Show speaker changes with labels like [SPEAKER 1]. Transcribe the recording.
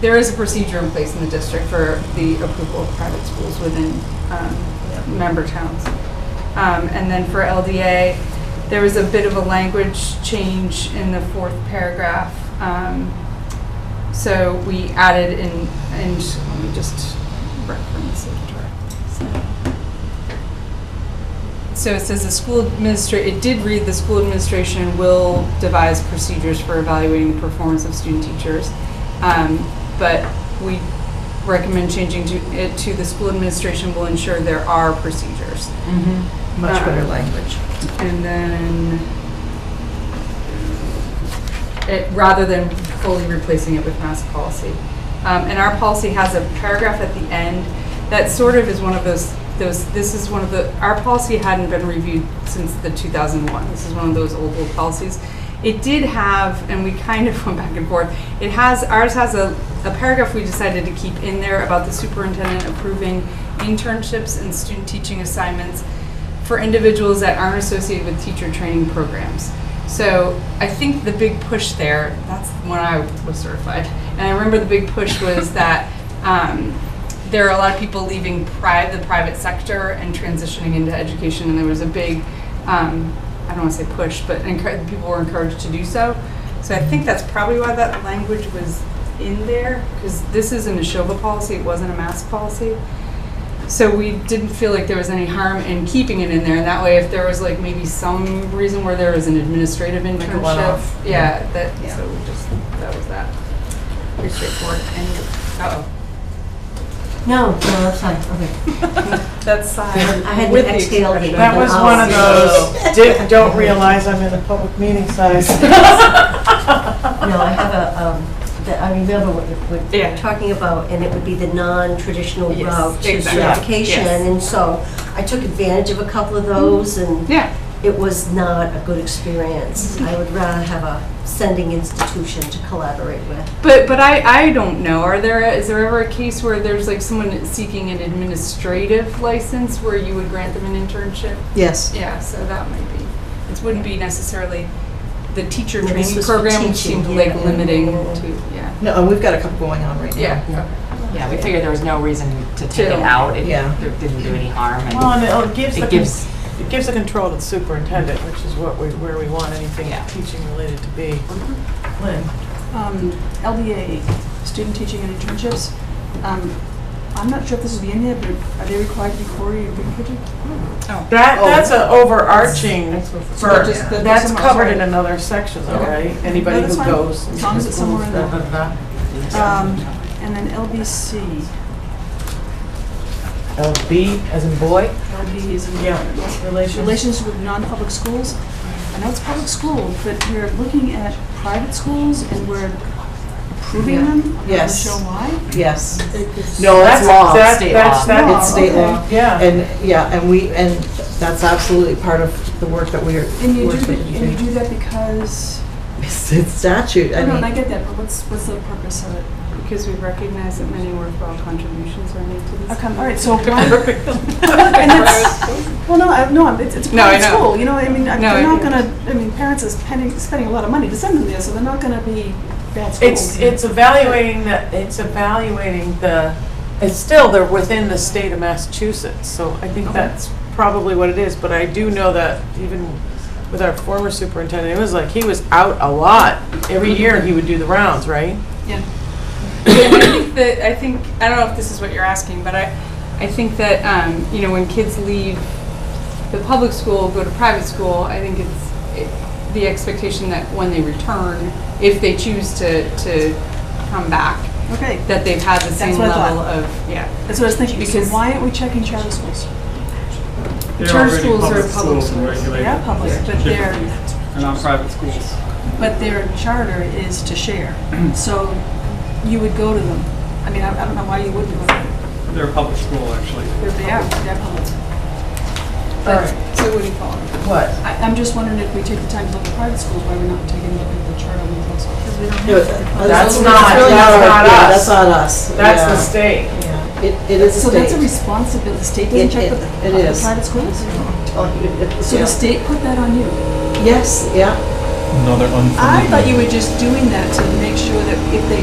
[SPEAKER 1] there is a procedure in place in the district for the approval of private schools within um, member towns. Um, And then for LDA, there was a bit of a language change in the fourth paragraph. Um, So we added in, and let me just reference it directly. So- so it says the school administra, it did read the school administration will devise procedures for evaluating the performance of student teachers. Um, But we recommend changing to, it to the school administration will ensure there are procedures.
[SPEAKER 2] Much
[SPEAKER 1] Uh-uh.
[SPEAKER 2] better language.
[SPEAKER 1] And then, it, rather than fully replacing it with mass policy. Um, and our policy has a paragraph at the end that sort of is one of those, those, this is one of the, our policy hadn't been reviewed since the 2001. This is one of those old, old policies. It did have, and we kind of went back and forth, it has, ours has a, a paragraph we decided to keep in there about the superintendent approving internships and student teaching assignments for individuals that aren't associated with teacher training programs. So I think the big push there, that's when I was certified. And I remember the big push was that um, there are a lot of people leaving pri- the private sector and transitioning into education, and there was a big, um, I don't want to say push, but encour- people were encouraged to do so. So I think that's probably why that language was in there, because this is an Ashova policy, it wasn't a mass policy. So we didn't feel like there was any harm in keeping it in there, and that way, if there was like maybe some reason where there was an administrative
[SPEAKER 2] a
[SPEAKER 1] internship,
[SPEAKER 2] one-off.
[SPEAKER 1] yeah, that,
[SPEAKER 2] Yeah.
[SPEAKER 1] so we just, that was that. Pretty straightforward, and, uh-oh,
[SPEAKER 3] No, no, that's fine, okay.
[SPEAKER 1] that's signed
[SPEAKER 3] I had
[SPEAKER 1] with
[SPEAKER 3] to
[SPEAKER 1] the
[SPEAKER 3] exhale
[SPEAKER 1] expression.
[SPEAKER 3] the-
[SPEAKER 2] That was one of those, di- don't realize I'm in a public meeting size.
[SPEAKER 3] No, I have a, um, that I remember what you- what you
[SPEAKER 1] Yeah.
[SPEAKER 3] were talking about, and it would be the non-traditional
[SPEAKER 1] Yes,
[SPEAKER 3] route to
[SPEAKER 1] exactly.
[SPEAKER 2] Yeah.
[SPEAKER 3] certification.
[SPEAKER 1] Yes.
[SPEAKER 3] And so I took advantage of a couple of those, and
[SPEAKER 1] Yeah,
[SPEAKER 3] it was not a good experience. I would rather have a sending institution to collaborate with.
[SPEAKER 1] but, but I, I don't know, are there, is there ever a case where there's like someone seeking an administrative license where you would grant them an internship?
[SPEAKER 2] Yes.
[SPEAKER 1] Yeah, so that might be, it wouldn't be necessarily the teacher
[SPEAKER 3] Well, this
[SPEAKER 1] training
[SPEAKER 3] was for
[SPEAKER 1] program which
[SPEAKER 3] teaching,
[SPEAKER 1] seemed like
[SPEAKER 3] yeah.
[SPEAKER 1] limiting to, yeah,
[SPEAKER 2] No, and we've got a couple going on right now.
[SPEAKER 1] yeah.
[SPEAKER 4] Yeah, we figured there was no reason to take it
[SPEAKER 1] To-
[SPEAKER 4] out. It
[SPEAKER 2] Yeah.
[SPEAKER 4] there didn't do any harm. and-
[SPEAKER 2] Well, and it gives the,
[SPEAKER 4] It gives-
[SPEAKER 2] con- it gives the control to the superintendent, which is what we, where we want anything
[SPEAKER 4] Yeah.
[SPEAKER 2] teaching related to be. Lynn?
[SPEAKER 5] um, LDA, student teaching and internships. Um, I'm not sure if this will be in there, but are they required to be Cory and Green Kitchen?
[SPEAKER 2] That,
[SPEAKER 5] Oh.
[SPEAKER 2] that's an overarching,
[SPEAKER 3] That's what-
[SPEAKER 2] for,
[SPEAKER 5] Just the-
[SPEAKER 2] that's
[SPEAKER 5] somewhere,
[SPEAKER 2] covered
[SPEAKER 5] sorry.
[SPEAKER 2] in another section though,
[SPEAKER 5] Okay.
[SPEAKER 2] right? Anybody who
[SPEAKER 5] No, that's fine.
[SPEAKER 2] goes.
[SPEAKER 5] As long as it's somewhere in there. Um, and then LBC,
[SPEAKER 2] LB as in boy?
[SPEAKER 5] LB is in
[SPEAKER 2] Yeah, relations.
[SPEAKER 5] relations with non-public schools. I know it's public school, but we're looking at private schools and we're approving
[SPEAKER 2] Yeah.
[SPEAKER 5] them. I'm not really
[SPEAKER 2] Yes.
[SPEAKER 5] sure why.
[SPEAKER 2] Yes.
[SPEAKER 5] It's-
[SPEAKER 2] No,
[SPEAKER 4] That's
[SPEAKER 2] that's,
[SPEAKER 4] law,
[SPEAKER 2] that-
[SPEAKER 4] state
[SPEAKER 2] that's,
[SPEAKER 4] law.
[SPEAKER 2] that's,
[SPEAKER 5] No,
[SPEAKER 2] it's state law.
[SPEAKER 5] Oh, okay.
[SPEAKER 2] Yeah. And, yeah, and we, and that's absolutely part of the work that we are.
[SPEAKER 5] And you
[SPEAKER 2] we're
[SPEAKER 5] do, that-
[SPEAKER 2] expected to
[SPEAKER 5] and
[SPEAKER 2] do.
[SPEAKER 5] you do that because,
[SPEAKER 2] It's it's statute,
[SPEAKER 5] no, and I
[SPEAKER 2] I mean,
[SPEAKER 5] get that, but what's, what's the purpose of it?
[SPEAKER 1] Because we recognize that many worthwhile contributions are made to this.
[SPEAKER 5] Okay, all right, so why, and that's, well, no, I, no, I'm- it's, it's a
[SPEAKER 1] No, I
[SPEAKER 5] private
[SPEAKER 1] know.
[SPEAKER 5] school, you know, I mean, I-
[SPEAKER 1] No, I
[SPEAKER 5] they're not
[SPEAKER 1] know.
[SPEAKER 5] gonna, I mean, parents are spending, spending a lot of money to send them there, so they're not gonna be bad schools.
[SPEAKER 2] it's, it's evaluating the, it's evaluating the, it's still, they're within the state of Massachusetts, so I think
[SPEAKER 5] Okay.
[SPEAKER 2] that's probably what it is, but I do know that even with our former superintendent, it was like, he was out a lot. Every year, he would do the rounds, right?
[SPEAKER 1] Yeah. I think that, I think, I don't know if this is what you're asking, but I, I think that, um, you know, when kids leave the public school, go to private school, I think it's it- the expectation that when they return, if they choose to, to come back,
[SPEAKER 5] Okay,
[SPEAKER 1] that they've had the same
[SPEAKER 5] what I thought.
[SPEAKER 1] level of, yeah.
[SPEAKER 5] that's what I was thinking, so
[SPEAKER 1] Because-
[SPEAKER 5] why aren't we checking charter schools?
[SPEAKER 6] They're
[SPEAKER 1] Charter
[SPEAKER 6] already
[SPEAKER 1] schools are public
[SPEAKER 6] and
[SPEAKER 1] schools.
[SPEAKER 5] They
[SPEAKER 6] regulated
[SPEAKER 5] are public, but
[SPEAKER 6] differently
[SPEAKER 5] their,
[SPEAKER 6] And on private schools.
[SPEAKER 5] but their charter is to share, so you would go to them. I mean, I, I don't know why you wouldn't go to them,
[SPEAKER 6] They're a public school, actually.
[SPEAKER 5] they're, they are, they're public.
[SPEAKER 2] Alright.
[SPEAKER 5] But, so what do you call it?
[SPEAKER 2] What?
[SPEAKER 5] I, I'm just wondering if we take the time to look at private schools, why we're not taking a look at the charter ones also. Because we don't
[SPEAKER 2] That's
[SPEAKER 3] It's
[SPEAKER 2] not,
[SPEAKER 3] really
[SPEAKER 2] that's
[SPEAKER 3] our-
[SPEAKER 2] not
[SPEAKER 3] yeah,
[SPEAKER 2] us.
[SPEAKER 3] That's not us.
[SPEAKER 2] That's the state.
[SPEAKER 3] It, it is
[SPEAKER 5] So that's a
[SPEAKER 3] state.
[SPEAKER 5] responsibility, the state
[SPEAKER 2] It-
[SPEAKER 5] doesn't check
[SPEAKER 2] it-
[SPEAKER 5] with
[SPEAKER 2] it
[SPEAKER 5] the the
[SPEAKER 2] is.
[SPEAKER 5] private schools? So
[SPEAKER 2] Yeah.
[SPEAKER 5] the state put that on you?
[SPEAKER 2] Yes, yeah.
[SPEAKER 7] another unfamiliar.
[SPEAKER 5] I thought you were just doing that to make sure that if they